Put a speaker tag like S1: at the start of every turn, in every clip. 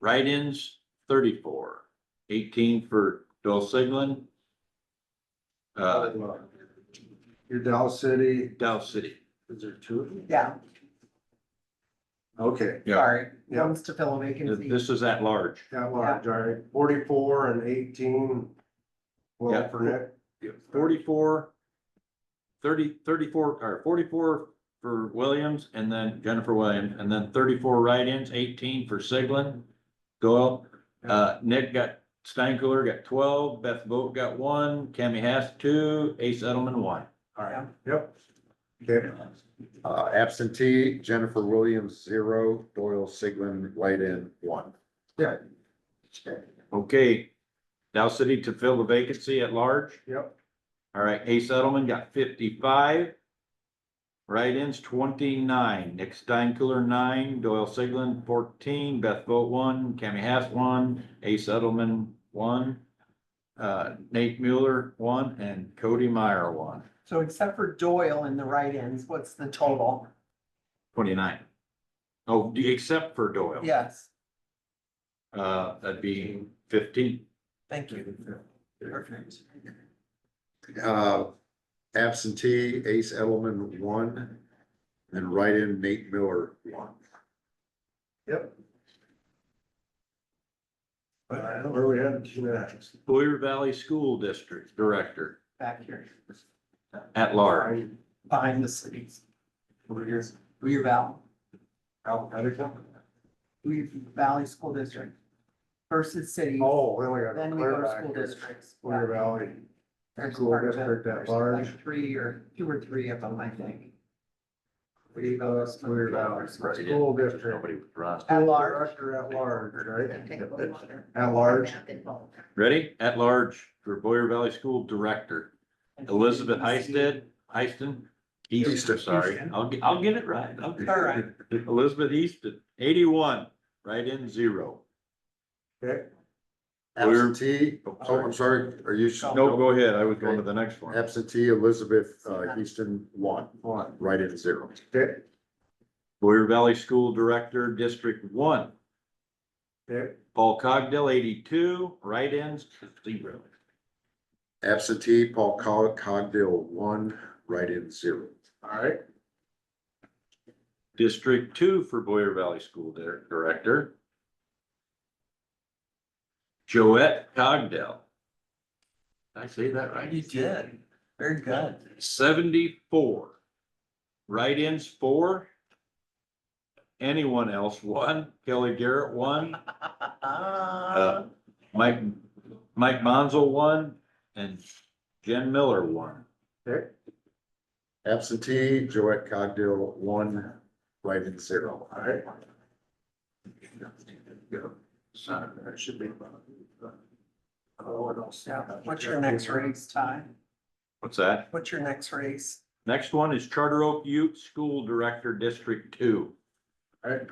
S1: Write-ins, thirty-four, eighteen for Bill Siglin. Uh,
S2: Your Dow City,
S1: Dow City.
S2: is there two of them?
S3: Yeah,
S2: Okay,
S1: Yeah.
S3: sorry,
S2: Yeah.
S3: one's to fill a vacancy.
S1: This is at large.
S2: that large, all right, forty-four and eighteen.
S1: Yeah.
S2: Well, for Nick,
S1: Forty-four, thirty, thirty-four, or forty-four for Williams and then Jennifer Williams, and then thirty-four write-ins, eighteen for Siglin. Doyle, uh, Nick got, Steinkuhler got twelve, Beth Vogt got one, Cammy Hass two, Ace Edelman one.
S2: all right, yep. Okay,
S4: Uh, absentee Jennifer Williams, zero, Doyle Siglin, write-in, one.
S1: Okay, Dow City to fill the vacancy at large.
S2: yep,
S1: All right, Ace Edelman got fifty-five. Write-ins twenty-nine, Nick Steinkuhler nine, Doyle Siglin fourteen, Beth Vogt one, Cammy Hass one, Ace Edelman one. Uh, Nate Mueller one and Cody Meyer one,
S3: So except for Doyle in the write-ins, what's the total?
S1: twenty-nine. Oh, d- except for Doyle.
S3: Yes,
S1: Uh, that'd be fifteen.
S3: thank you. Perfect.
S4: Uh, absentee Ace Edelman, one, and write-in Nate Miller, one.
S2: yep. All right, Uh, where we at, two next?
S1: Boyer Valley School District Director
S3: Back here,
S1: at large.
S3: behind the cities. Over here. Weir Valley,
S2: Alphabetical?
S3: Weir Valley School District versus cities.
S2: Oh, we only got.
S3: Then we
S2: clear
S3: go to
S2: back
S3: school
S2: here.
S3: districts.
S2: Clear Valley,
S3: There's
S2: school
S3: part of it.
S2: district at
S3: There's
S2: large.
S3: like Three or, two or three of them, I think.
S2: we go to Clear Valley, school district.
S1: Nobody was wrong.
S3: At large.
S2: Director at large,
S3: Okay,
S2: right?
S3: but we want to-
S2: At large,
S1: Ready? At large for Boyer Valley School Director, Elizabeth Heisted, Heiston? Easton,
S4: Easton.
S1: sorry. I'll, get- I'll get it right. I'll get it
S3: All right.
S1: Elizabeth Easton, eighty-one, right in zero.
S2: okay,
S4: Absentee,
S1: Oh,
S4: oh, I'm sorry, are you?
S1: No, go ahead. I was going to the next one.
S4: Absentee Elizabeth, uh, Houston, one,
S2: one,
S4: write-in, zero.
S2: okay,
S1: Boyer Valley School Director, District One,
S2: okay,
S1: Paul Cogdill, eighty-two, right ins, zero.
S4: Absentee Paul Cog- Cogdill, one, write-in, zero.
S2: all right.
S1: District Two for Boyer Valley School Dir- Director. Joette Cogdell. Did I say that right?
S3: You did, very good.
S1: seventy-four. Write-ins, four. Anyone else, one. Kelly Garrett, one.
S3: Uh-huh.
S1: Uh, Mike, Mike Monzel, one. And Jen Miller, one.
S4: Absentee Joette Cogdill, one, write-in, zero.
S2: All right.
S1: Son
S2: That should be. Oh, what else?
S3: Yeah, what's your next race, Ty?
S1: What's that?
S3: What's your next race?
S1: Next one is Charter Oak Youth School Director, District Two.
S2: All right,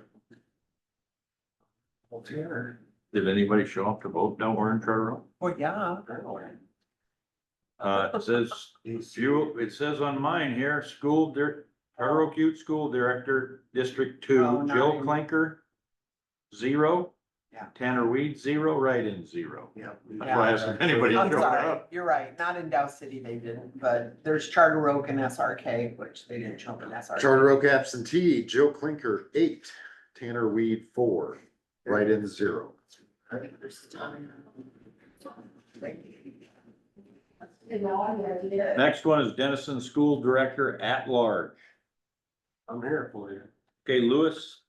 S1: Did anybody show up to vote down there in Charter Oak?
S3: Well, yeah,
S1: Uh, it says, you, it says on mine here, school, dir- Charter Oak Youth School Director, District
S3: Oh,
S1: Two, Jill
S3: nine.
S1: Clinker, zero.
S3: Yeah.
S1: Tanner Weed, zero, write-in, zero.
S2: yeah.
S1: That's why I asked if anybody
S3: I'm
S1: showed
S3: sorry,
S1: up.
S3: you're right, not in Dow City they didn't, but there's Charter Oak and SRK, which they didn't jump in SRK.
S4: Charter Oak absentee Jill Clinker, eight, Tanner Weed, four, write-in, zero.
S1: Next one is Dennison School Director at Large.
S2: I'm here for you.
S1: Okay, Lewis.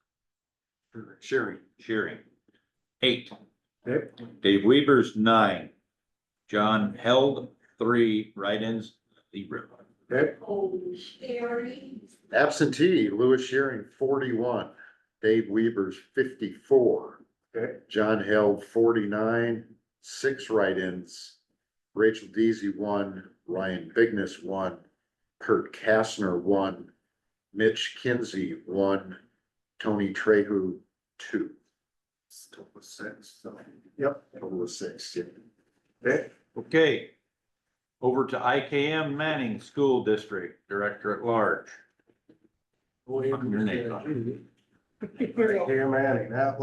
S1: Shearing. Shearing. Eight.
S2: Okay.
S1: Dave Weaver's nine. John Held, three, write-ins, zero.
S2: Okay,
S4: Absentee Lewis Shearing, forty-one, Dave Weavers, fifty-four,
S2: okay,
S4: John Held, forty-nine, six write-ins, Rachel Deasy, one, Ryan Bigness, one, Kurt Kastner, one, Mitch Kinsey, one, Tony Trehu, two.
S2: still with six, so, yep,
S4: Total of six, yeah.
S2: okay,
S1: Okay. Over to IKM Manning School District Director at Large.
S2: William.
S1: Put your name on
S2: Cam Manning, that